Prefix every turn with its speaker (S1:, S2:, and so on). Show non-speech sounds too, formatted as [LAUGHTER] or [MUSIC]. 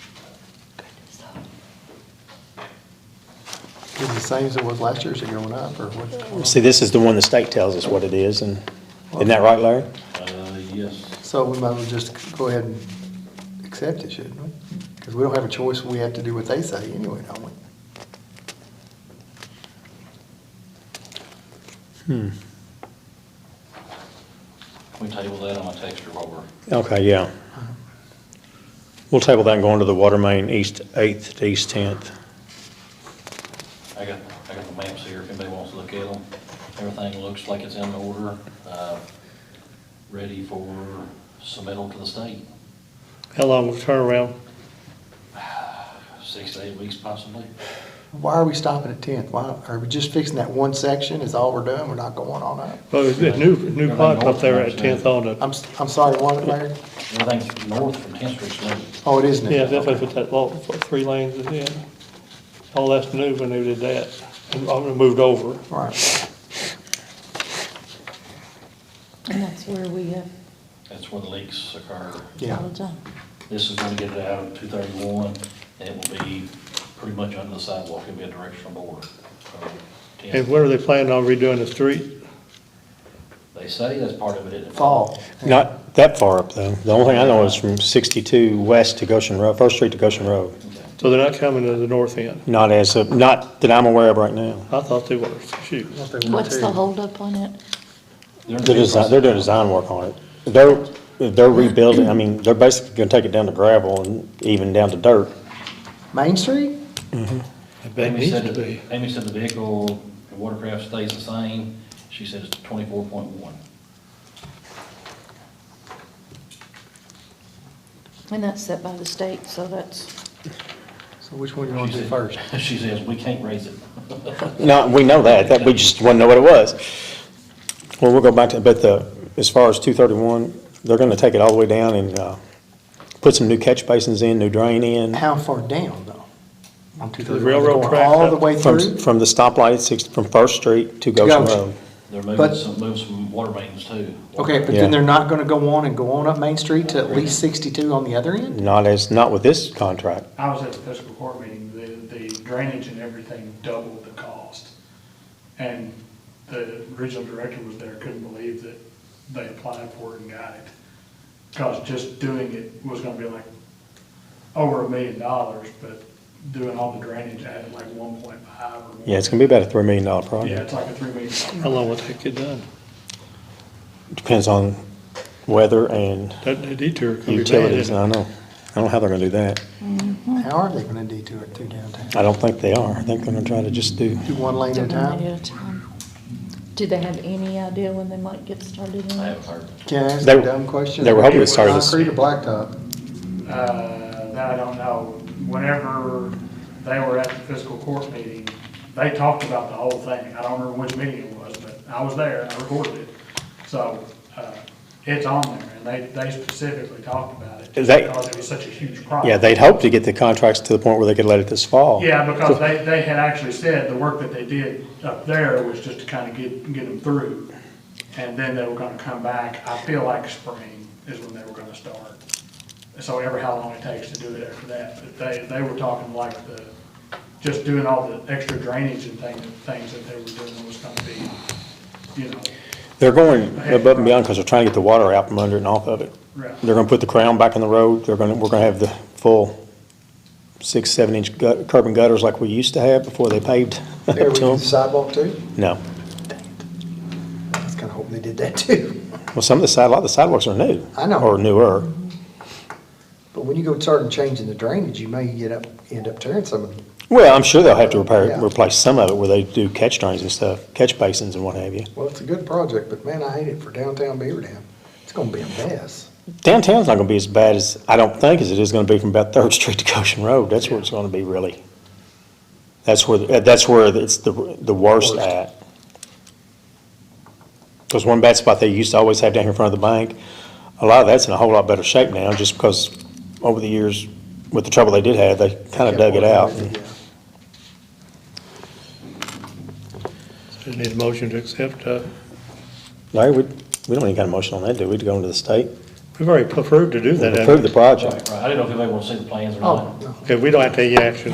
S1: same as it was last year, is it going up, or what?
S2: See, this is the one the state tells us what it is, and, isn't that right, Larry?
S3: Uh, yes,
S1: So we might as well just go ahead and accept it, shouldn't we? Because we don't have a choice, we have to do what they say anyway, don't we?
S3: can we table that? I'm gonna text her while we're.
S2: Okay, yeah. We'll table that and go on to the water main, east eighth to east tenth.
S3: I got, I got the maps here, if anybody wants to look at them. Everything looks like it's in order, uh, ready for submittal to the state,
S4: How long was turnaround?
S3: six to eight weeks possibly.
S1: Why are we stopping at tenth? Why, are we just fixing that one section, is all we're doing, we're not going on up?
S4: Well, it's a new, new pipe up there at Tenth on it.
S1: I'm, s- I'm sorry, what, Larry?
S3: Everything north from 10th Street's new.
S1: Oh, it is new.
S4: Yeah, that's what put that long, three lanes in there. All that's new when they did that. And all they moved over.
S1: Right,
S5: And that's where we have
S3: That's where the leaks occur.
S1: yeah.
S5: all the time.
S3: This is gonna get it out of 231, and it will be pretty much under the sidewalk, it'll be a directional board. So, 10th.
S4: And where are they planning on redoing the street?
S3: They say that's part of it. isn't it?
S1: Fall.
S2: Not that far up, though. The only thing I know is from sixty-two west to Goshen Road, First Street to Goshen Road.
S3: Okay.
S4: So they're not coming to the north end.
S2: Not as, of- not that I'm aware of right now.
S4: I thought they were, shoot.
S5: What's the holdup on it?
S3: They're in
S2: They're design, they're doing design work on it. They're, they're rebuilding, I mean, they're basically gonna take it down to gravel and even down to dirt.
S1: Main Street?
S4: That
S3: Amy
S4: needs
S3: said,
S4: to
S3: the-
S4: be.
S3: Amy said the vehicle, the watercraft stays the same, she said it's twenty-four point one.
S5: And that's set by the state, so that's,
S1: So which one you want to do first?
S3: [LAUGHS] She says, we can't raise it.
S2: No, we know that, that, we just wouldn't know what it was. Well, we'll go back to, but the, as far as two thirty-one, they're gonna take it all the way down and, uh, put some new catch basins in, new drain in.
S1: How far down, though? On two
S4: The
S1: thirty-one?
S4: railroad
S1: Going
S4: track
S1: All
S4: up
S1: the way
S2: From,
S1: through?
S2: from the stoplight, at six, from First Street to Goshen
S1: Goshen.
S2: Road.
S3: They're
S1: But-
S3: moving some, moving some water mains too.
S1: Okay, but
S2: Yeah.
S1: then they're not gonna go on and go on up Main Street to at least sixty-two on the other end?
S2: Not as, not with this contract.
S6: I was at the fiscal court meeting, the, the drainage and everything doubled the cost. And the original director was there, couldn't believe that they applied for it and got it. Cause just doing it was gonna be like over a million dollars, but doing all the drainage added like one point five or more.
S2: Yeah, it's gonna be about a three million dollar
S6: Yeah,
S2: project.
S6: it's like a three million.
S4: How long will that get done?
S2: Depends on weather and
S4: That that detour could be bad.
S2: utilities,
S4: isn't it?
S2: I know. I don't know how they're gonna do that.
S1: How are they gonna detour it through downtown?
S2: I don't think they are. I think they're gonna try to just do,
S1: Do one lane at a time?
S5: at a time. Do they have any idea when they might get started
S3: I
S5: on it?
S3: haven't heard.
S1: Can I ask
S2: They-
S1: a dumb question?
S2: they were hoping to start this-
S1: Concrete or
S2: [LAUGHS]
S1: blacktop?
S6: Uh, that I don't know. Whenever they were at the fiscal court meeting, they talked about the whole thing. I don't remember which meeting it was, but I was there, I recorded it. So, uh, it's on there, and they, they specifically talked about it, just
S2: They-
S6: because it was such a huge problem.
S2: yeah, they'd hope to get the contracts to the point where they could let it this fall.
S6: Yeah, because they, they had actually said the work that they did up there was just to kind of get, get them through. And then they were gonna come back, I feel like spring is when they were gonna start. So ever how long it takes to do it after that, but they, they were talking like the, just doing all the extra drainage and thing, things that they were doing was gonna be, you know,
S2: They're going above and beyond because they're trying to get the water out from under it and off of it.
S6: Right.
S2: They're gonna put the crown back in the road. They're gonna, we're gonna have the full six, seven inch gut, curb and gutters like we used to have before they paved [LAUGHS] to
S1: There we do the
S2: them.
S1: sidewalk too?
S2: No.
S1: I was kinda hoping they did that too.
S2: Well, some of the side, a lot of the sidewalks are new.
S1: I know.
S2: Or newer.
S1: [LAUGHS] But when you go start changing the drainage, you may get up, end up tearing some of them.
S2: Well, I'm sure they'll have to repair,
S1: Yeah.
S2: replace some of it where they do catch drains and stuff, catch basins and what have you.
S1: Well, it's a good project, but man, I hate it for downtown Beaverdam. It's gonna be a mess.
S2: Downtown's not gonna be as bad as, I don't think, as it is gonna be from about Third Street to Goshen Road. That's where it's gonna be really. That's where, uh, that's where it's the, the worst
S1: Worst.
S2: at. Because one bad spot they used to always have down here in front of the bank, a lot of that's in a whole lot better shape now, just because over the years, with the trouble they did have, they kinda dug it out. and-
S1: Yeah.
S4: They Need a motion to accept, uh,
S2: Larry, we, we don't even got a motion on that, do we, to go into the state?
S4: we've already approved to do that. haven't we?
S2: Approve the project.
S3: Right, right. I didn't know if anybody wants to see the plans or not.
S1: Oh, no.
S4: Okay, we don't have to take any action